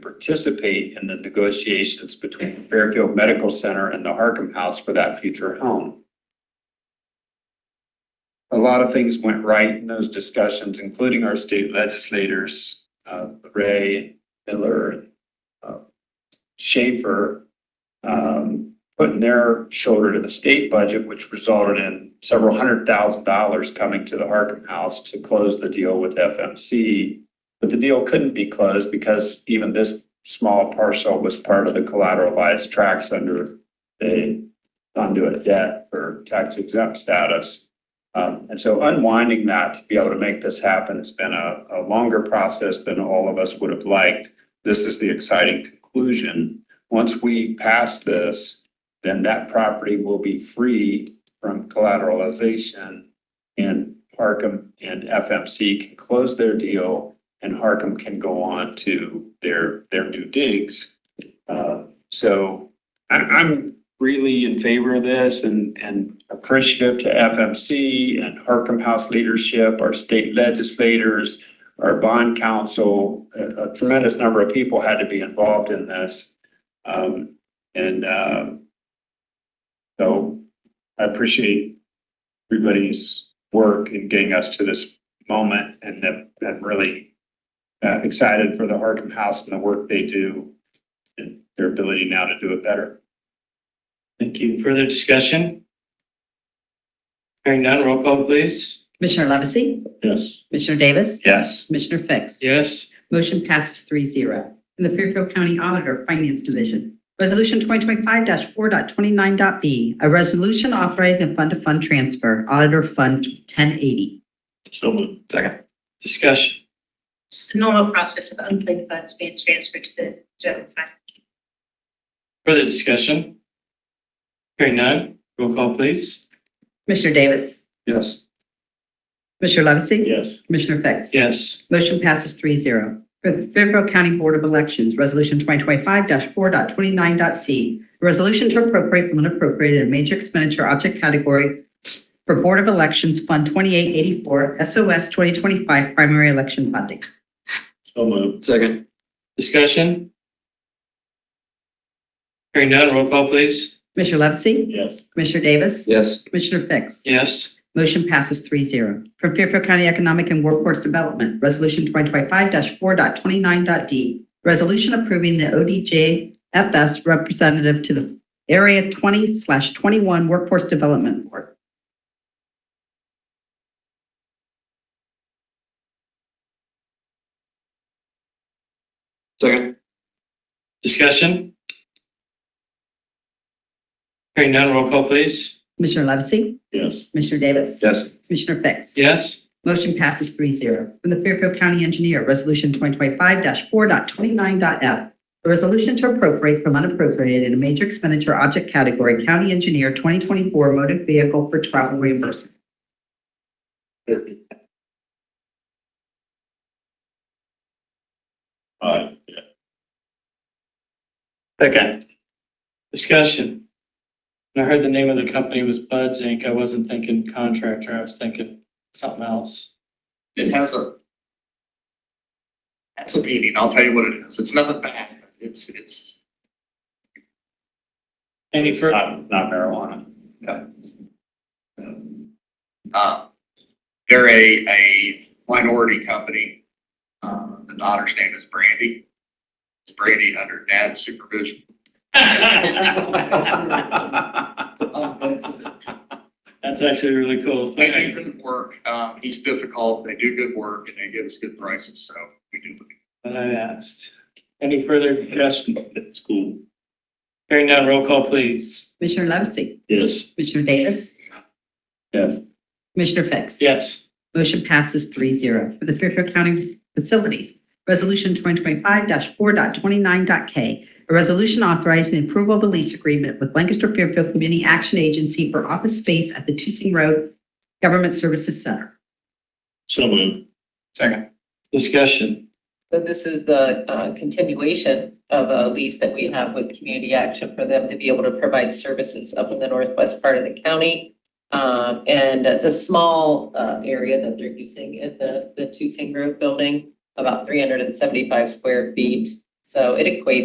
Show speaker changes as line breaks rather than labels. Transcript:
participate in the negotiations between Fairfield Medical Center and the Harcum House for that future home. A lot of things went right in those discussions, including our state legislators, uh, Ray, Miller, uh, Schaefer, um, putting their shoulder to the state budget, which resulted in several hundred thousand dollars coming to the Harcum House to close the deal with FMC. But the deal couldn't be closed because even this small parcel was part of the collateralized tracts under the conduit debt for tax exempt status. Um, and so unwinding that to be able to make this happen has been a, a longer process than all of us would have liked. This is the exciting conclusion. Once we pass this, then that property will be free from collateralization and Parkham and FMC can close their deal and Harcum can go on to their, their new digs. Uh, So I'm, I'm really in favor of this and, and appreciative to FMC and Harcum House leadership, our state legislators, our bond council, a a tremendous number of people had to be involved in this. Um, And um, so I appreciate everybody's work in getting us to this moment and that, that really uh, excited for the Arkham House and the work they do and their ability now to do it better.
Thank you. Further discussion? Hearing none, roll call please.
Commissioner Levesey?
Yes.
Commissioner Davis?
Yes.
Commissioner Fix?
Yes.
Motion passes three zero. In the Fairfield County Auditor Finance Division, Resolution 2025-4.29.b, a resolution authorizing fund-to-fund transfer, Auditor Fund 1080.
So Second. Discussion.
It's the normal process of unclaimed funds being transferred to the general fund.
Further discussion? Hearing none, roll call please.
Commissioner Davis?
Yes.
Commissioner Levesey?
Yes.
Commissioner Fix?
Yes.
Motion passes three zero. For the Fairfield County Board of Elections, Resolution 2025-4.29.c, a resolution to appropriate from unappropriated in major expenditure object category for Board of Elections Fund 2884 SOS 2025 primary election funding.
So moved.
Second. Discussion? Hearing none, roll call please.
Commissioner Levesey?
Yes.
Commissioner Davis?
Yes.
Commissioner Fix?
Yes.
Motion passes three zero. From Fairfield County Economic and Workforce Development, Resolution 2025-4.29.d, resolution approving the ODJFS representative to the Area 20/21 Workforce Development Board.
Second. Discussion? Hearing none, roll call please.
Commissioner Levesey?
Yes.
Commissioner Davis?
Yes.
Commissioner Fix?
Yes.
Motion passes three zero. From the Fairfield County Engineer, Resolution 2025-4.29.f. A resolution to appropriate from unappropriated in a major expenditure object category, County Engineer 2024 Motor Vehicle for Travel Reimbursement.
Aye. Second.
Discussion. When I heard the name of the company was Buds Inc., I wasn't thinking contractor, I was thinking something else.
It has a. That's a meaning, I'll tell you what it is, it's nothing bad, it's, it's,
Any
It's
further,
not, not marijuana.
uh, they're a, a minority company. Uh, the daughter's name is Brandy. It's Brandy under dad's supervision.
that's actually really cool.
They do good work, um, he's difficult, they do good work, and they give us good prices, so we do.
That I asked. Any further discussion?
It's cool.
Hearing none, roll call please.
Commissioner Levesey?
Yes.
Commissioner Davis?
Yes.
Commissioner Fix?
Yes.
Motion passes three zero. For the Fairfield County Facilities, Resolution 2025-4.29.k, a resolution authorizing the approval of a lease agreement with Lancaster Fairfield Community Action Agency for office space at the Tusing Road Government Services Center.
So moved. Second.
Discussion.
So this is the uh, continuation of a lease that we have with Community Action for them to be able to provide services up in the northwest part of the county. Um, And it's a small uh, area that they're using at the, the Tusing Grove Building, about 375 square feet. So it equates